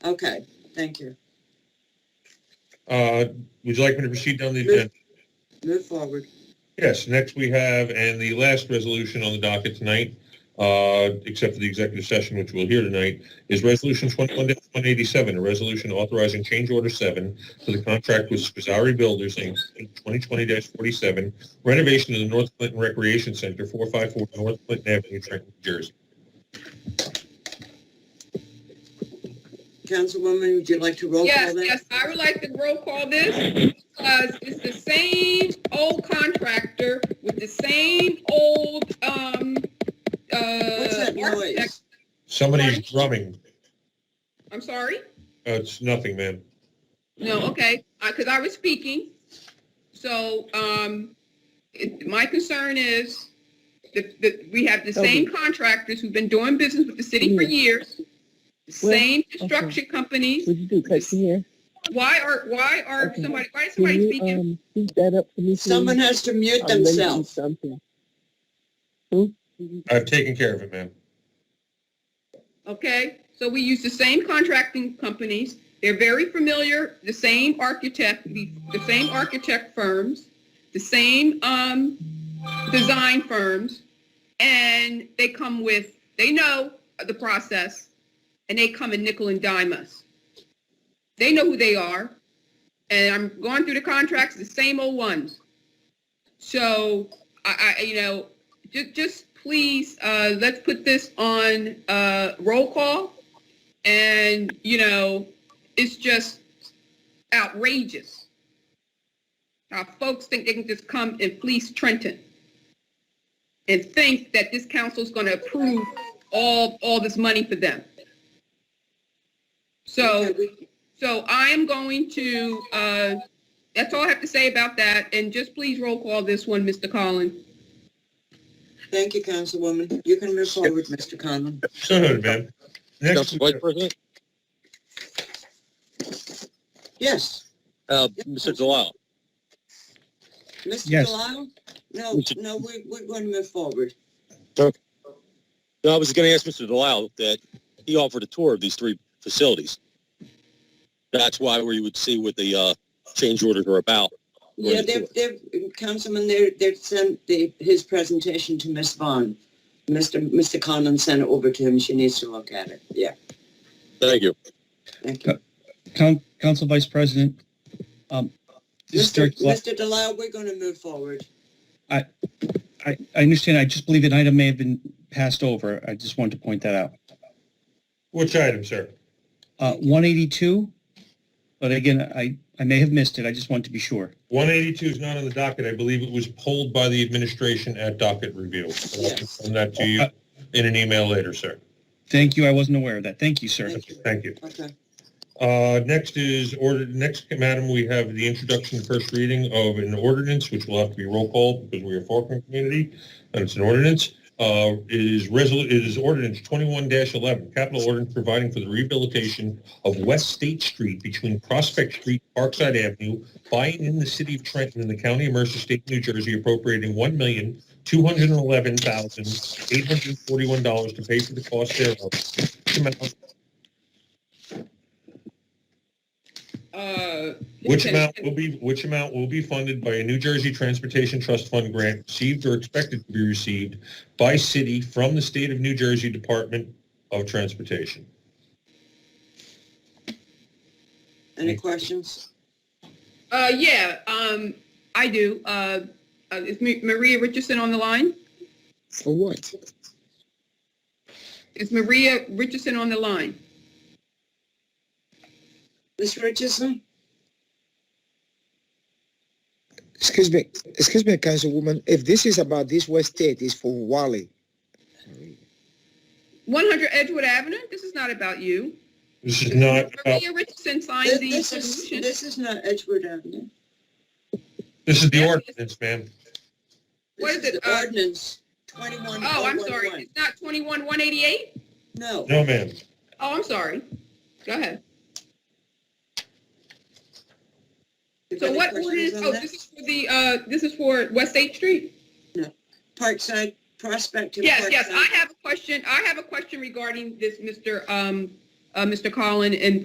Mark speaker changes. Speaker 1: Okay, thank you.
Speaker 2: Uh, Would you like me to proceed down the agenda?
Speaker 1: Move forward.
Speaker 2: Yes, next we have, and the last resolution on the docket tonight, uh, except for the executive session, which we'll hear tonight, is Resolution 21-187, a resolution authorizing change order seven to the contract with Scazzari Builders, Inc., 2020-47, renovation of the North Clinton Recreation Center, 454 North Clinton Avenue, Trenton, New Jersey.
Speaker 1: Councilwoman, would you like to roll call
Speaker 3: Yes,
Speaker 1: that?
Speaker 3: yes, I would like to roll call this because it's the same old contractor with the same old, um,
Speaker 1: What's
Speaker 3: uh,
Speaker 1: that
Speaker 3: architect.
Speaker 1: noise?
Speaker 2: Somebody's drumming.
Speaker 3: I'm sorry?
Speaker 2: Uh, It's nothing, ma'am.
Speaker 3: No, okay, because I was speaking. So, um, it- my concern is that, that we have the same contractors who've been doing business with the city for years, the
Speaker 4: Mm. Well,
Speaker 3: same construction companies.
Speaker 4: Would you do cut your hair?
Speaker 3: Why are, why are
Speaker 4: Okay.
Speaker 3: somebody, why is
Speaker 4: Can
Speaker 3: somebody
Speaker 4: you,
Speaker 3: speaking?
Speaker 4: um, speak that up for me? please?
Speaker 1: Someone has to mute
Speaker 4: I'm ready to do
Speaker 1: themselves.
Speaker 4: Something.
Speaker 2: I've taken care of it, ma'am.
Speaker 3: Okay, so we use the same contracting companies. They're very familiar, the same architect, the the same architect firms, the same um, design firms, and they come with, they know the process, and they come and nickel and dime us. They know who they are, and I'm going through the contracts, the same old ones. So, I, I, you know, ju- just please, uh, let's put this on, uh, roll call. And, you know, it's just outrageous. Our folks think they can just come and fleece Trenton and think that this council's gonna approve all, all this money for them. So,
Speaker 1: Okay, we-
Speaker 3: so I am going to, uh, that's all I have to say about that. And just please roll call this one, Mr. Collins.
Speaker 1: Thank you, Councilwoman. You can move forward, Mr. Conlon.
Speaker 2: So noted, ma'am. Next,
Speaker 5: Council Vice President,
Speaker 1: Yes,
Speaker 5: uh, Mr. Delisle,
Speaker 1: Mr.
Speaker 6: Yes.
Speaker 1: Delisle? No,
Speaker 5: Mr.
Speaker 1: no, we, we're going to move forward.
Speaker 5: no, I was going to ask Mr. Delisle that he offered a tour of these three facilities. That's why we would see what the, uh, change orders are about.
Speaker 1: Yeah, they've, they've, Councilman, they're, they've sent the, his presentation to Ms. Vaughn. Mr. Mr. Conlon sent it over to him. She needs to look at it. Yeah,
Speaker 5: Thank you.
Speaker 1: thank you.
Speaker 6: Coun- Council Vice President, um, this is
Speaker 1: Mr.
Speaker 6: Dirk Glo-
Speaker 1: Mr. Delisle, we're going to move forward.
Speaker 6: I, I understand, I just believe an item may have been passed over. I just wanted to point that out.
Speaker 2: which item, sir?
Speaker 6: Uh, 182, but again, I, I may have missed it. I just wanted to be sure.
Speaker 2: 182 is not on the docket. I believe it was pulled by the administration at docket review. But I'll
Speaker 1: Yes.
Speaker 2: send that to you in an email later, sir.
Speaker 6: Thank you, I wasn't aware of that. Thank you, sir.
Speaker 1: Thank you.
Speaker 2: Thank you.
Speaker 1: Okay,
Speaker 2: Uh, Next is order, next, madam, we have the introduction and first reading of an ordinance, which will have to be roll call because we are a Faulkner community, and it's an ordinance. Uh, It is resol, it is ordinance 21-11, capital ordinance providing for the rehabilitation of West State Street between Prospect Street, Parkside Avenue, by and in the city of Trenton and the county of Mercer State, New Jersey appropriating $1,211,841 to pay for the cost thereof. This amount
Speaker 3: Uh,
Speaker 2: Which
Speaker 3: okay.
Speaker 2: amount will be, which amount will be funded by a New Jersey Transportation Trust Fund grant received or expected to be received by city from the state of New Jersey Department of Transportation.
Speaker 1: any questions?
Speaker 3: Uh, yeah, um, I do. Uh, uh, is Ma- Maria Richardson on the line?
Speaker 5: For what?
Speaker 3: Is Maria Richardson on the line?
Speaker 1: Ms. Richardson?
Speaker 7: Excuse me, excuse me, Councilwoman. If this is about this West State, it's for Wally.
Speaker 3: 100 Edgewood Avenue? This is not about you.
Speaker 2: This is not, about-
Speaker 3: Maria Richardson
Speaker 1: This
Speaker 3: signed the
Speaker 1: this is,
Speaker 3: resolution.
Speaker 1: this is not Edgewood Avenue.
Speaker 2: this is the ordinance, ma'am.
Speaker 3: What
Speaker 1: This
Speaker 3: is it,
Speaker 1: the
Speaker 3: uh,
Speaker 1: Ordinance twenty-one.
Speaker 3: Oh, I'm sorry. It's not 21-188?
Speaker 1: No,
Speaker 2: No, ma'am.
Speaker 3: Oh, I'm sorry. Go ahead.
Speaker 1: If
Speaker 3: So
Speaker 1: any
Speaker 3: what
Speaker 1: questions
Speaker 3: ordinance,
Speaker 1: on
Speaker 3: oh,
Speaker 1: that?
Speaker 3: this is for the, uh, this is for West State Street?
Speaker 1: Parkside, Prospect. and
Speaker 3: Yes, yes,
Speaker 1: Parkside.
Speaker 3: I have a question. I have a question regarding this, Mr., um, uh, Mr. Collin, and